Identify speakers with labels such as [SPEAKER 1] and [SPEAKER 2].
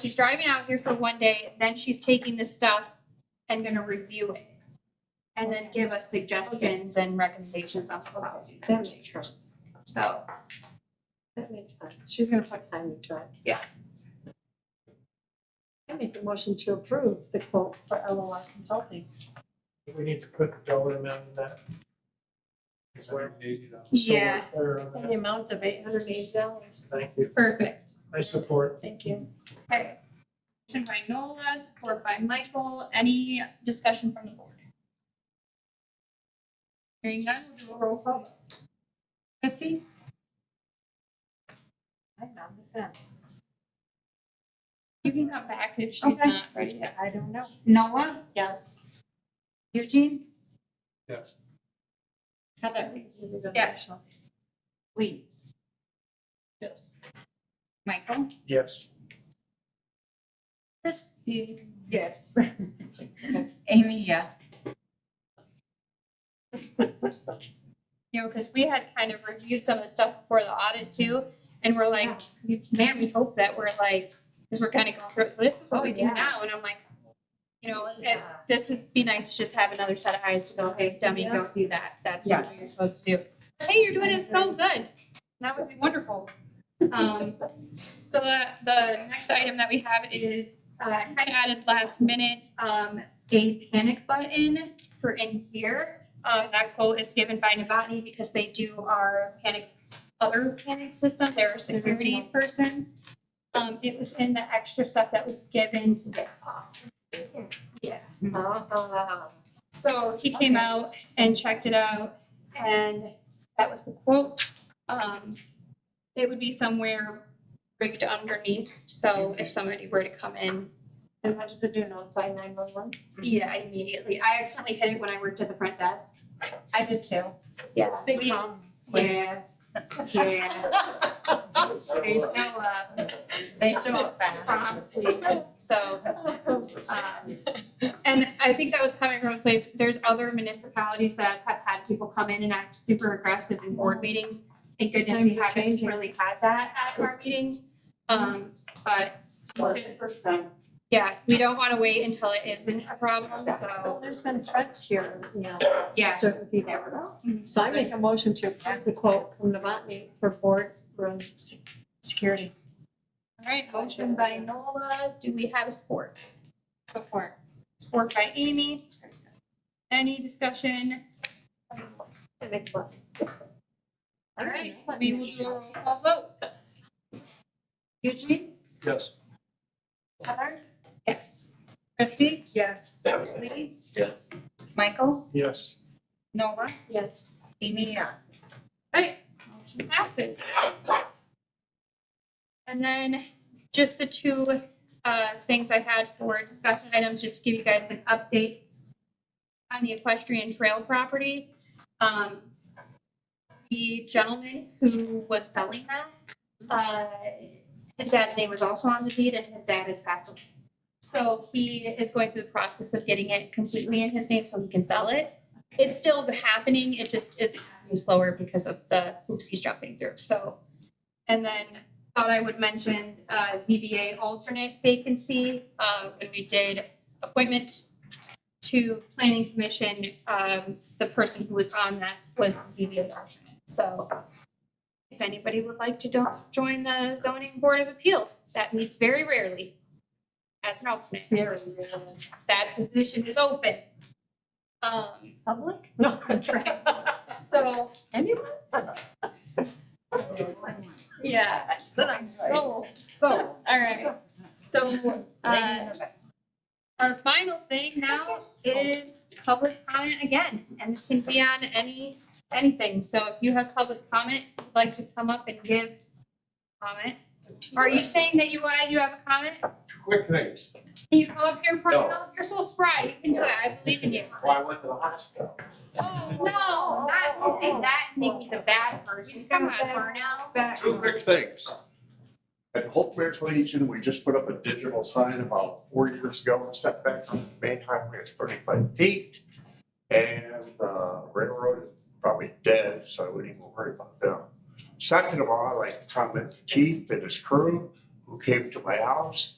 [SPEAKER 1] She's driving out here for one day, then she's taking this stuff and gonna review it. And then give us suggestions and recommendations on the policies and
[SPEAKER 2] That makes
[SPEAKER 1] procedures.
[SPEAKER 2] sense.
[SPEAKER 1] So,
[SPEAKER 2] That makes sense. She's gonna put time into it.
[SPEAKER 1] yes.
[SPEAKER 2] I make a motion to approve the quote for LOR Consulting.
[SPEAKER 3] We need to put the dollar amount in that. It's where- so we're
[SPEAKER 1] Yeah,
[SPEAKER 3] clear on
[SPEAKER 2] In
[SPEAKER 3] that.
[SPEAKER 2] the amount of eight hundred and eighty dollars.
[SPEAKER 3] Thank you.
[SPEAKER 1] perfect.
[SPEAKER 3] I support.
[SPEAKER 2] Thank you.
[SPEAKER 1] Okay. Motion by Nola, support by Michael. Any discussion from the board? Hearing none, we'll do a roll call. vote.
[SPEAKER 2] Christie? I'm on the fence.
[SPEAKER 1] You can come back if she's
[SPEAKER 2] Okay.
[SPEAKER 1] not ready yet.
[SPEAKER 2] I don't know.
[SPEAKER 4] Noah,
[SPEAKER 2] Yes.
[SPEAKER 4] Eugene,
[SPEAKER 3] Yes.
[SPEAKER 4] Heather,
[SPEAKER 1] Yes.
[SPEAKER 4] Lee.
[SPEAKER 3] Yes.
[SPEAKER 4] Michael,
[SPEAKER 3] Yes.
[SPEAKER 1] Christie.
[SPEAKER 2] Yes.
[SPEAKER 4] Amy, yes.
[SPEAKER 1] you know, because we had kind of reviewed some of the stuff before the audit too, and we're like, man, we hope that we're like, because we're kind of going through, this is what we do
[SPEAKER 2] Oh, Yeah.
[SPEAKER 1] now, and I'm like, you know, it, this would be nice to just have another set of eyes to go, hey, dummy, go
[SPEAKER 2] Yes.
[SPEAKER 1] do that, that's what
[SPEAKER 4] Yes.
[SPEAKER 1] you're supposed to do. Hey, you're doing it so good, that would be wonderful. Um, so the, the next item that we have is, uh, kind of added last minute, um, a panic button for in here. Uh, that quote is given by Novotny because they do our panic, other panic systems, they're a security person. Um, it was in the extra stuff that was given to this. Yeah.
[SPEAKER 2] Ah.
[SPEAKER 1] So he came out and checked it out and that was the quote. Um, it would be somewhere rigged underneath, so if somebody were to come in,
[SPEAKER 2] And what does it do, notify nine one one?
[SPEAKER 1] yeah, immediately. I accidentally hit it when I worked at the front desk.
[SPEAKER 4] I did too.
[SPEAKER 1] Yeah.
[SPEAKER 2] Big
[SPEAKER 1] We-
[SPEAKER 2] problem.
[SPEAKER 1] Yeah, yeah. There's no, uh,
[SPEAKER 4] They show up fast.
[SPEAKER 1] prompt, so. Um, And I think that was coming from a place, there's other municipalities that have had people come in and act super aggressive in board meetings. Thank goodness we
[SPEAKER 2] Times are
[SPEAKER 1] haven't
[SPEAKER 2] changing.
[SPEAKER 1] really had that at our meetings. Um, but
[SPEAKER 2] First time.
[SPEAKER 1] yeah, we don't wanna wait until it isn't a problem, so,
[SPEAKER 2] There's been threats here, you know.
[SPEAKER 1] yeah.
[SPEAKER 2] Certain people.
[SPEAKER 1] Mhm.
[SPEAKER 2] So I make a motion to approve the quote from Novotny for boardrooms se- security.
[SPEAKER 1] All right, motion by Nola, do we have a support?
[SPEAKER 4] Support.
[SPEAKER 1] Support by Amy. Any discussion?
[SPEAKER 2] I make one.
[SPEAKER 1] All right, we will do a roll call vote.
[SPEAKER 4] Eugene,
[SPEAKER 3] Yes.
[SPEAKER 4] Heather,
[SPEAKER 1] Yes.
[SPEAKER 4] Christie,
[SPEAKER 2] Yes.
[SPEAKER 4] Lee. Michael,
[SPEAKER 3] Yes.
[SPEAKER 4] Noah,
[SPEAKER 2] Yes.
[SPEAKER 4] Amy, yes.
[SPEAKER 1] Motion passes. And then just the two uh things I had for discussion items, just to give you guys an update on the equestrian trail property. Um, the gentleman who was selling that, uh, his dad's name was also on the deed and his dad has passed away. So he is going through the process of getting it completely in his name so he can sell it. It's still happening, it just is happening slower because of the hoops he's jumping through, so. And then thought I would mention uh ZBA alternate vacancy, uh when we did appointment to planning commission, um the person who was on that was the ZBA alternate, so. If anybody would like to do- join the zoning board of appeals, that meets very rarely as an alternate,
[SPEAKER 2] Very,
[SPEAKER 1] that position is open. Um,
[SPEAKER 2] Public? No.
[SPEAKER 1] so,
[SPEAKER 2] Anyone?
[SPEAKER 1] yeah,
[SPEAKER 2] Then I'm sorry.
[SPEAKER 1] so,
[SPEAKER 4] So.
[SPEAKER 1] all right, so, uh, our final thing now is public comment again, and this can be on any, anything, so if you have public comment, you'd like to come up and give comment. Are you saying that you, uh, you have a comment?
[SPEAKER 5] Quick things.
[SPEAKER 1] Can you come up here in front of,
[SPEAKER 5] No.
[SPEAKER 1] you're so spry, you can do it, I believe in you.
[SPEAKER 5] Why I went to the hospital.
[SPEAKER 1] Oh, no, not,
[SPEAKER 4] Oh.
[SPEAKER 1] say that, Nikki, the bad person, come on, Darnell.
[SPEAKER 5] Two quick things. At Holtware Legion, we just put up a digital sign about four years ago, setback from the main highway is thirty-five feet. And uh, railroad is probably dead, so I wouldn't even worry about them. Second of all, I'd like to comment to Chief and his crew who came to my house